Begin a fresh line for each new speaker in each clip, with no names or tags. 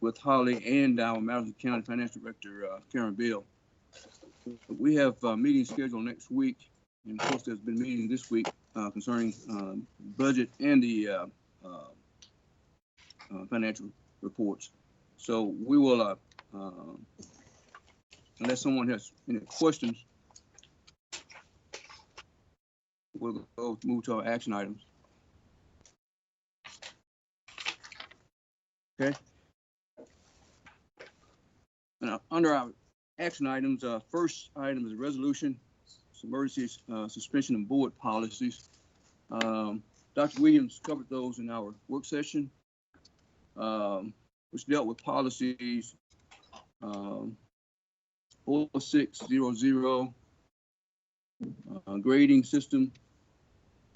with Holly and our Madison County Finance Director, uh, Karen Bill. We have a meeting scheduled next week, and of course, there's been meetings this week uh, concerning um, budget and the uh, uh, uh, financial reports. So we will, uh, um, unless someone has any questions, we'll go move to our action items. Okay? Now, uh, under our action items, uh, first item is a resolution, it's emergency, uh, suspension of board policies. Um, Dr. Williams covered those in our work session, um, which dealt with policies, um, four six zero zero, uh, grading system,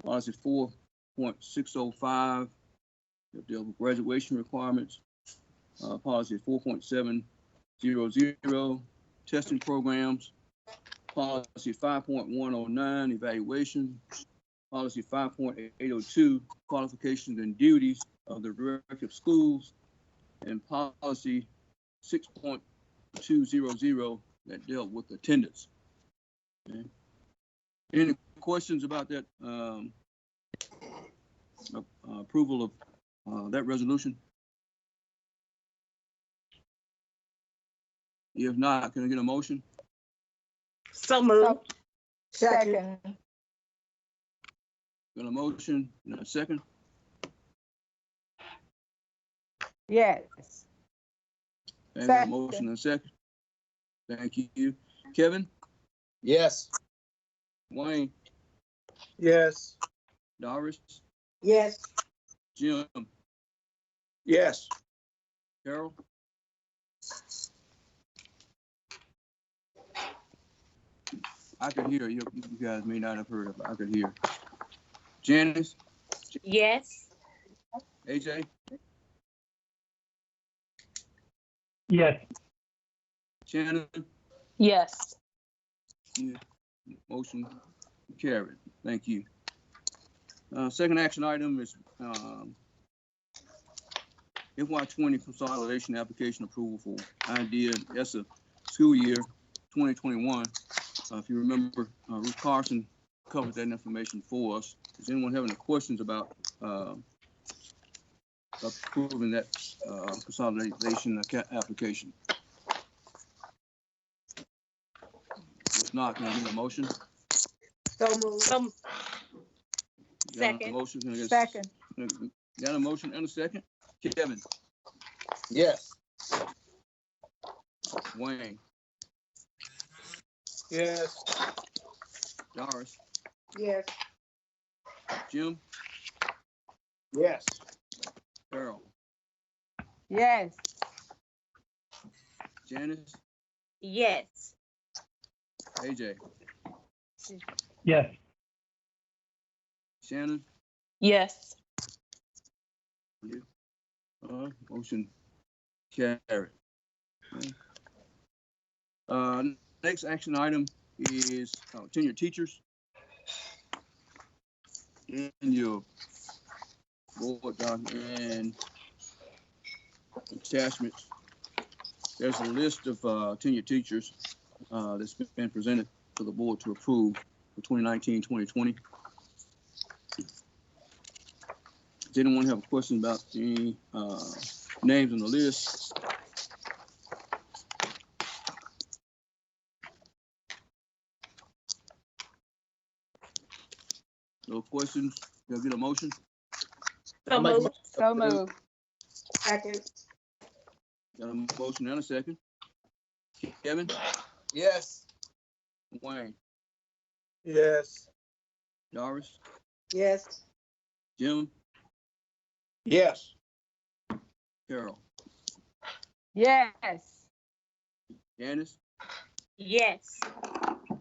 policy four point six oh five, that deals with graduation requirements, uh, policy four point seven zero zero, testing programs, policy five point one oh nine, evaluation, policy five point eight oh two, qualifications and duties of the director of schools, and policy six point two zero zero that dealt with attendance. Okay. Any questions about that, um, a- uh, approval of, uh, that resolution? If not, can I get a motion?
So moved.
Second,
Got a motion and a second?
yes.
Okay, we have a
Second.
motion and a second. Thank you. Kevin,
Yes.
Wayne,
Yes.
Doris,
Yes.
Jim,
Yes.
Carol? I could hear, you You guys may not have heard, but I could hear. Janice,
Yes.
AJ,
Yes,
Shannon,
Yes.
motion carried. Thank you. Uh, second action item is, um, FY twenty consolidation application approval for idea ESSA school year twenty twenty-one. Uh, if you remember, uh, Ruth Carson covered that information for us. Does anyone have any questions about, uh, approving that, uh, consolidation acca- application? If not, can I get a motion?
So moved.
So,
Got a
Second.
Motion, can I get a
Second,
Got a motion and a second? Kevin,
Yes.
Wayne,
Yes.
Doris,
yes.
Jim,
Yes.
Carol,
Yes.
Janice,
yes.
AJ,
yes,
Shannon.
Yes.
Uh, motion carried. Uh, next action item is uh, tenure teachers. In your board document and attachments, there's a list of uh, tenure teachers uh, that's been presented to the board to approve for 2019, 2020. Does anyone have a question about the uh, names on the list? No questions? Can I get a motion?
So moved.
So moved. Second,
Got a motion and a second. Kevin,
Yes.
Wayne,
Yes.
Doris,
yes.
Jim,
Yes.
Carol,
Yes.
Janice,
Yes.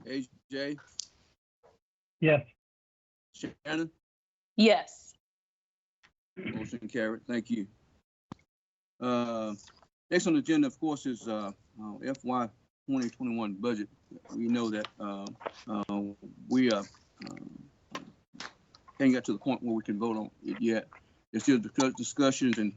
AJ,
yes,
Shannon.
Yes.
Motion carried. Thank you. Uh, Next on the agenda, of course, is uh, uh, FY 2021 budget. We know that uh, uh, we uh, uh, can't get to the point where we can vote on it yet. There's still discuss- discussions and